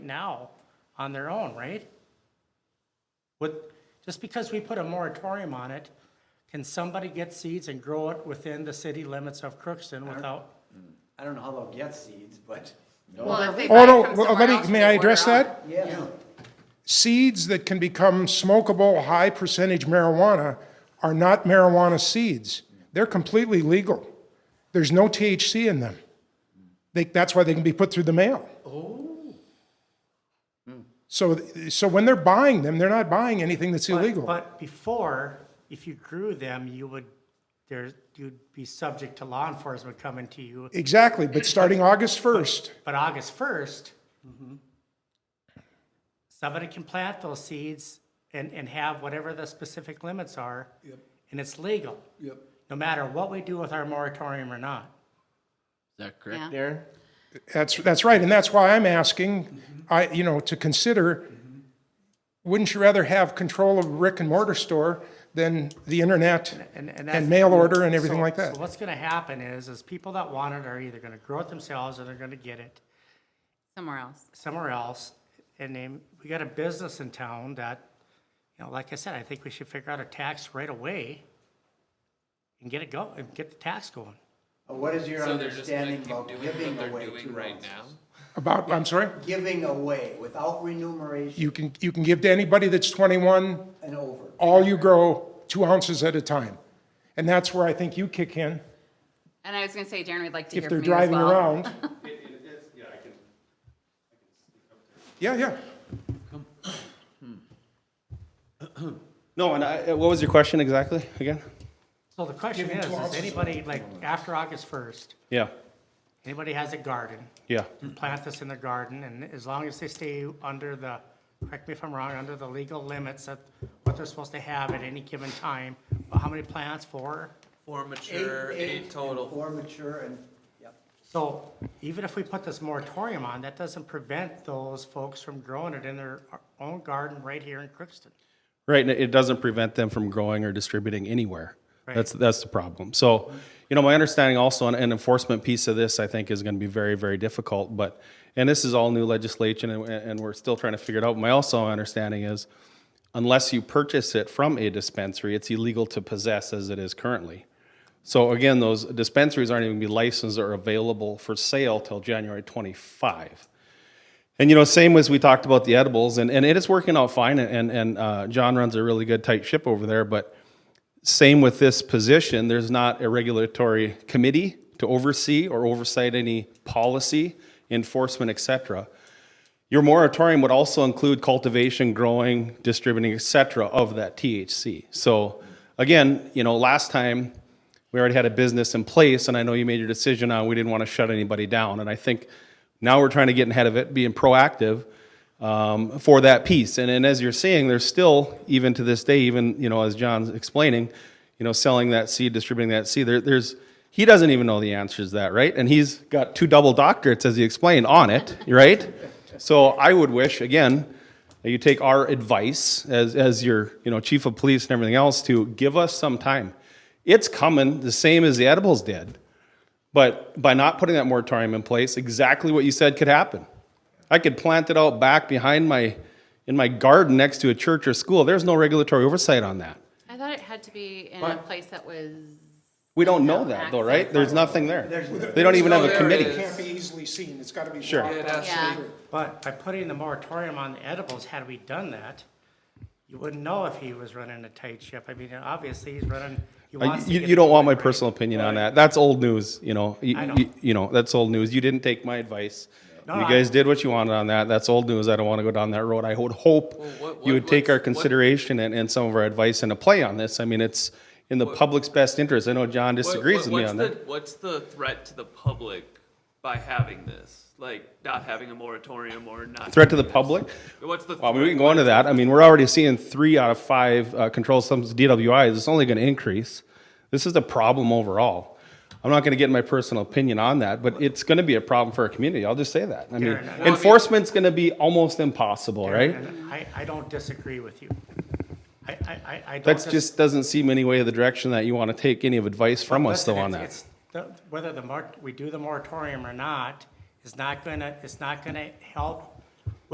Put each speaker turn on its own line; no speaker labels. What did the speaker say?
now on their own, right? With, just because we put a moratorium on it, can somebody get seeds and grow it within the city limits of Crookston without?
I don't know how they'll get seeds, but.
Well, if they buy
Oh,
it
no,
from
well,
somewhere
let me-
else,
may
they
I
order
address
out.
that?
Yeah.
Seeds that can become smokable, high percentage marijuana are not marijuana seeds. They're completely legal. There's no THC in them. They, that's why they can be put through the mail. Oh. So, so when they're buying them, they're not buying anything that's
But-
illegal.
But before, if you grew them, you would, there, you'd be subject to law enforcement coming to you.
Exactly, but starting August 1st,
But August first, somebody can plant those seeds and, and have whatever the specific limits are. And it's legal. Yep. No matter what we do with our moratorium or not.
Is that correct
Yeah.
there?
That's, that's right, and that's why I'm asking, I, you know, to consider, wouldn't you rather have control of a brick and mortar store than the internet
And, and that's.
and mail order and everything
So-
like that?
So what's gonna happen is, is people that want it are either gonna grow it themselves or they're gonna get it
Somewhere else.
somewhere else. And then we got a business in town that, you know, like I said, I think we should figure out a tax right away and get it go, and get the tax going.
What is your
So they're just gonna
understanding
keep
about
doing
giving
what they're
away two
doing right
ounces?
now?
About, I'm sorry,
Giving away without remuneration
you can, you can give to anybody that's 21,
and over.
all you grow, two ounces at a time. And that's where I think you kick in,
And I was gonna say, Darren, we'd like to hear
if
from you
they're
as well.
driving around. Yeah, yeah.
No, and I, what was your question exactly again?
So the question is, is anybody, like, after August first,
Yeah,
anybody has a garden,
yeah,
plant this in their garden, and as long as they stay under the, correct me if I'm wrong, under the legal limits of what they're supposed to have at any given time, but how many plants for?
Four mature, eight total.
Four mature and, yep.
So even if we put this moratorium on, that doesn't prevent those folks from growing it in their own garden right here in Crookston.
right. And it doesn't prevent them from growing or distributing anywhere. That's that's the problem. So, you know, my understanding also an an enforcement piece of this, I think, is going to be very very difficult. But and this is all new legislation, and, and we're still trying to figure it out. My also understanding is, unless you purchase it from a dispensary, it's illegal to possess as it is currently. So again, those dispensaries aren't even gonna be licensed or available for sale till January 25. And you know, same as we talked about the edibles, and, and it is working out fine. And and uh, John runs a really good tight ship over there. But same with this position, there's not a regulatory committee to oversee or oversight any policy, enforcement, et cetera. Your moratorium would also include cultivation, growing, distributing, et cetera, of that THC. So again, you know, last time we already had a business in place and I know you made your decision on, we didn't want to shut anybody down. And I think now we're trying to get ahead of it, being proactive um, for that piece. And, and as you're seeing, there's still, even to this day, even, you know, as John's explaining, you know, selling that seed, distributing that seed, there, there's, he doesn't even know the answers to that, right? And he's got two double doctorates, as he explained, on it, right? So I would wish, again, that you take our advice as, as your, you know, chief of police and everything else to give us some time. It's coming the same as the edibles did. But by not putting that moratorium in place, exactly what you said could happen. I could plant it out back behind my, in my garden next to a church or school. There's no regulatory oversight on that.
I thought it had to be in a place that was,
We don't know that though, right? There's nothing there. They don't even have a
There
committee.
is.
Can't be easily seen, it's gotta be.
Sure.
blocked
It
out.
has
yeah,
But by putting the moratorium on the edibles, had we done that, you wouldn't know if he was running a tight ship. I mean, obviously, he's running, he
Uh,
wants to
You,
get
you
it
don't want my
going, right?
personal opinion on that. That's old news, you know. You,
I know.
you- you know, that's old news. You didn't take my advice.
No,
you
I-
guys did what you wanted on that. That's old news. I don't want to go down that road. I would hope
what-
you
what-
would take our
what's- what-
consideration and, and some of our advice into play on this. I mean, it's in the public's best interest. I know John
What-
disagrees
what-
with me on
what's
that.
the- What's the threat to the public by having this? Like, not having a moratorium or not?
Threat to the public?
What's the?
Well, I mean, we
threat?
can go into that. I mean, we're already seeing three out of five uh, controlled substance DWIs. It's only going to increase. This is a problem overall. I'm not going to get my personal opinion on that, but it's going to be a problem for our community. I'll just say that. I mean,
Darren, I-
enforcement's going to be almost impossible, right?
And I, I don't disagree with you. I, I, I- I don't.
That
dis-
just doesn't seem any way of the direction that you want to take any of advice from us
Listen,
though on
it's-
that.
it's the- Whether the mor, we do the moratorium or not, is not gonna, it's not gonna help